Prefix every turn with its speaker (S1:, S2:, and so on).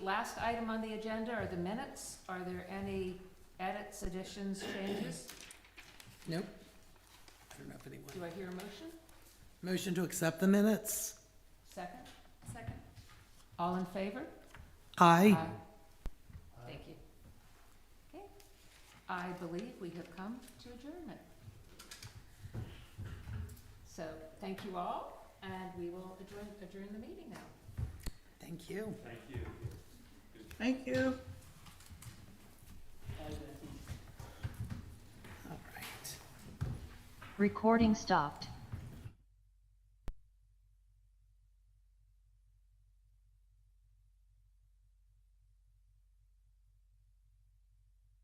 S1: Last item on the agenda are the minutes. Are there any edits, additions, changes?
S2: Nope. I don't know if anyone.
S1: Do I hear a motion?
S2: Motion to accept the minutes?
S1: Second?
S3: Second.
S1: All in favor?
S2: Aye.
S1: Thank you. Okay, I believe we have come to adjournment. So, thank you all, and we will adjourn, adjourn the meeting now.
S2: Thank you.
S4: Thank you.
S2: Thank you. All right.
S5: Recording stopped.